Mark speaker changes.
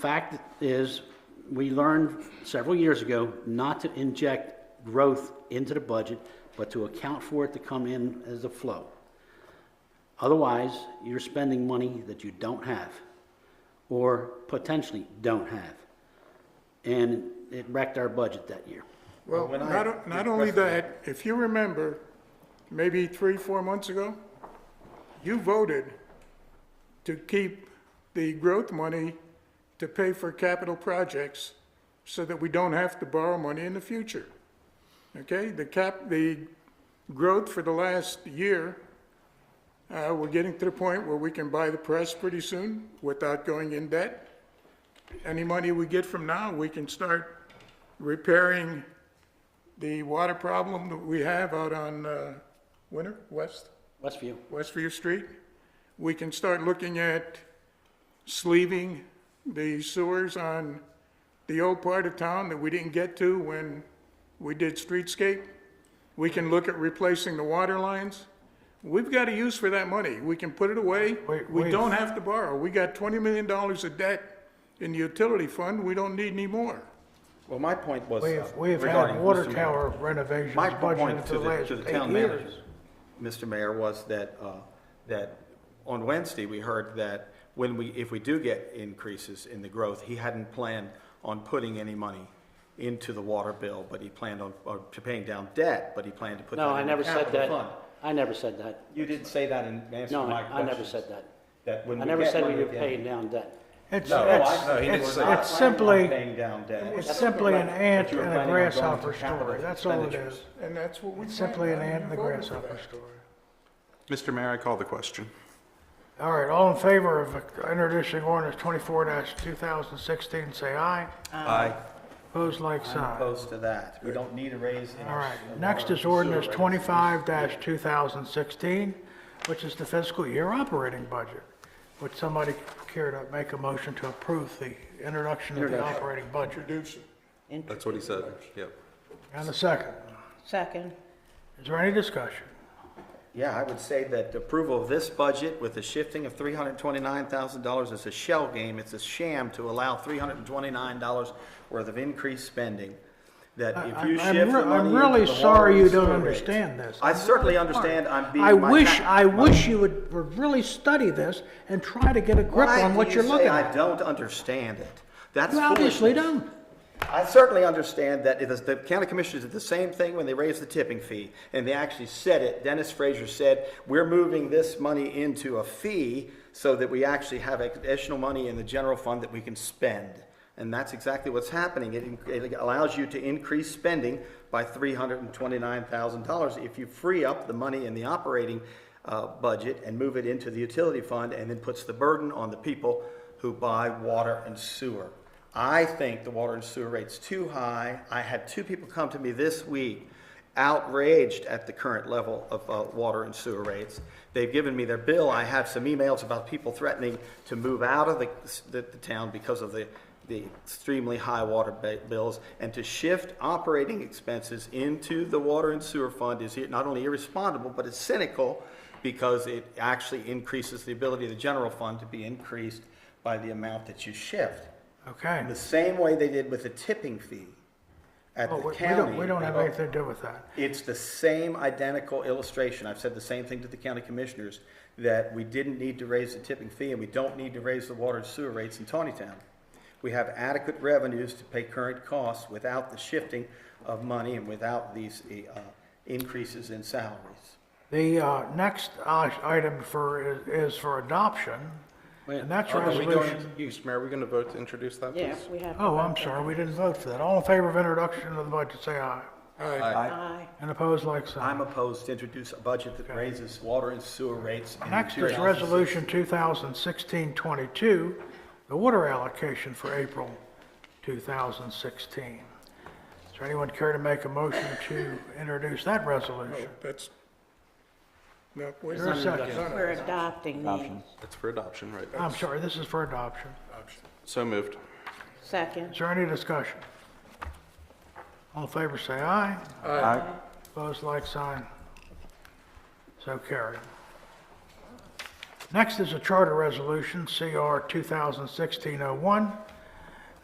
Speaker 1: Fact is, we learned several years ago not to inject growth into the budget, but to account for it to come in as a flow. Otherwise, you're spending money that you don't have, or potentially don't have. And it wrecked our budget that year.
Speaker 2: Well, not, o- not only that, if you remember, maybe three, four months ago, you voted to keep the growth money to pay for capital projects so that we don't have to borrow money in the future. Okay, the cap, the growth for the last year, uh, we're getting to the point where we can buy the press pretty soon without going in debt. Any money we get from now, we can start repairing the water problem that we have out on, uh, Winter, West?
Speaker 1: Westview,
Speaker 2: Westview Street. We can start looking at sleeving the sewers on the old part of town that we didn't get to when we did streetscape. We can look at replacing the water lines. We've got a use for that money. We can put it away.
Speaker 3: Wait,
Speaker 2: We
Speaker 3: wait.
Speaker 2: don't have to borrow. We got twenty million dollars of debt in the utility fund. We don't need any more.
Speaker 4: Well, my point was.
Speaker 3: We've, we've had
Speaker 4: regarding
Speaker 3: water
Speaker 4: Mr. Mayor.
Speaker 3: tower renovations
Speaker 4: My point
Speaker 3: budgeted for
Speaker 4: to
Speaker 3: the
Speaker 4: the,
Speaker 3: last
Speaker 4: to the
Speaker 3: eight
Speaker 4: town
Speaker 3: years.
Speaker 4: managers, Mr. Mayor, was that, uh, that on Wednesday, we heard that when we, if we do get increases in the growth, he hadn't planned on putting any money into the water bill, but he planned on, or to paying down debt, but he planned to put that
Speaker 1: no, I
Speaker 4: in the
Speaker 1: never said
Speaker 4: capital
Speaker 1: that.
Speaker 4: fund.
Speaker 1: I never said that.
Speaker 4: You didn't say that in answer to
Speaker 1: No,
Speaker 4: my
Speaker 1: I I
Speaker 4: question.
Speaker 1: never said that.
Speaker 4: That when
Speaker 1: I
Speaker 4: we
Speaker 1: never
Speaker 4: get
Speaker 1: said we
Speaker 4: money
Speaker 1: were
Speaker 4: again-
Speaker 1: paying down debt.
Speaker 3: It's,
Speaker 4: No,
Speaker 3: it's,
Speaker 4: I- no, he didn't.
Speaker 3: it's,
Speaker 4: We're not
Speaker 3: it's
Speaker 4: planning on
Speaker 3: simply,
Speaker 4: Paying down debt.
Speaker 3: it's simply an ant
Speaker 4: But you were
Speaker 3: and a
Speaker 4: planning on going to
Speaker 3: grasshopper
Speaker 4: capital
Speaker 3: story. That's all it
Speaker 4: expenditures.
Speaker 3: is.
Speaker 2: And that's what we.
Speaker 3: It's simply an
Speaker 2: planned on.
Speaker 3: ant and a
Speaker 2: We voted for
Speaker 3: grasshopper
Speaker 2: that.
Speaker 3: story.
Speaker 5: Mr. Mayor, I call the question.
Speaker 3: All right, all in favor of introducing ordinance twenty-four two thousand sixteen, say aye.
Speaker 4: Aye.
Speaker 3: Opposed, like
Speaker 4: I'm
Speaker 3: sign.
Speaker 4: opposed to that. We don't need a raise in
Speaker 3: All
Speaker 4: our.
Speaker 3: right, next is ordinance twenty-five two thousand sixteen, which is the fiscal year operating budget. Would somebody care to make a motion to approve the introduction of the operating budget?
Speaker 2: Introduce it.
Speaker 5: That's what he said, yep.
Speaker 3: And a second.
Speaker 6: Second.
Speaker 3: Is there any discussion?
Speaker 4: Yeah, I would say that approval of this budget with the shifting of three hundred twenty-nine thousand dollars is a shell game. It's a sham to allow three hundred twenty-nine dollars worth of increased spending. That if you
Speaker 3: I- I'm
Speaker 4: shift the
Speaker 3: re- I'm
Speaker 4: money into
Speaker 3: really
Speaker 4: the water
Speaker 3: sorry you
Speaker 4: and
Speaker 3: don't
Speaker 4: sewer rates-
Speaker 3: understand this.
Speaker 4: I certainly understand I'm being.
Speaker 3: I
Speaker 4: my
Speaker 3: wish,
Speaker 4: tax-
Speaker 3: I wish you would really study this and try to get a grip
Speaker 4: Why
Speaker 3: on
Speaker 4: do
Speaker 3: what
Speaker 4: you
Speaker 3: you're
Speaker 4: say
Speaker 3: looking
Speaker 4: I
Speaker 3: at.
Speaker 4: don't understand it. That's
Speaker 3: You obviously
Speaker 4: foolishness.
Speaker 3: don't.
Speaker 4: I certainly understand that it is, the county commissioners did the same thing when they raised the tipping fee, and they actually said it. Dennis Frazier said, we're moving this money into a fee so that we actually have additional money in the general fund that we can spend. And that's exactly what's happening. It, it allows you to increase spending by three hundred and twenty-nine thousand dollars if you free up the money in the operating, uh, budget and move it into the utility fund, and then puts the burden on the people who buy water and sewer. I think the water and sewer rate's too high. I had two people come to me this week outraged at the current level of uh, water and sewer rates. They've given me their bill. I have some emails about people threatening to move out of the, the the town because of the, the extremely high water ba- bills. And to shift operating expenses into the water and sewer fund is not only irresponsible, but it's cynical because it actually increases the ability of the general fund to be increased by the amount that you shift.
Speaker 3: Okay.
Speaker 4: The same way they did with the tipping fee at
Speaker 3: Well,
Speaker 4: the
Speaker 3: Oh, we- we
Speaker 4: county.
Speaker 3: don't, we don't have anything to do with that.
Speaker 4: It's the same identical illustration. I've said the same thing to the county commissioners, that we didn't need to raise the tipping fee and we don't need to raise the water and sewer rates in Tawnytown. We have adequate revenues to pay current costs without the shifting of money and without these uh, increases in salaries.
Speaker 3: The uh, next uh, item for, is- is for adoption, and that's
Speaker 5: Are we going,
Speaker 3: resolution.
Speaker 5: Mr. Mayor, are we going to vote to introduce that, please?
Speaker 6: Yeah, we have. to
Speaker 3: Oh, I'm
Speaker 6: vote that.
Speaker 3: sorry, we didn't vote for that. All in favor of introduction of the budget, say aye.
Speaker 6: Aye.
Speaker 3: And opposed, like sign.
Speaker 4: I'm opposed to introduce a budget that raises water and sewer rates. in
Speaker 3: Next is
Speaker 4: 2006.
Speaker 3: Resolution 2016-22, the water allocation for April 2016. Does there anyone care to make a motion to introduce that resolution?
Speaker 2: Oh, That's, no, wait
Speaker 3: There
Speaker 2: a
Speaker 3: is
Speaker 2: second.
Speaker 3: second.
Speaker 2: No, no.
Speaker 6: We're adopting these.
Speaker 5: It's for adoption, right?
Speaker 3: I'm sorry, this is for adoption.
Speaker 5: So moved.
Speaker 3: Is
Speaker 6: Second.
Speaker 3: there any discussion? All in favor, say aye.
Speaker 4: Aye.
Speaker 3: Opposed, like sign. So carried. oh Next is a charter resolution, CR 2016-01,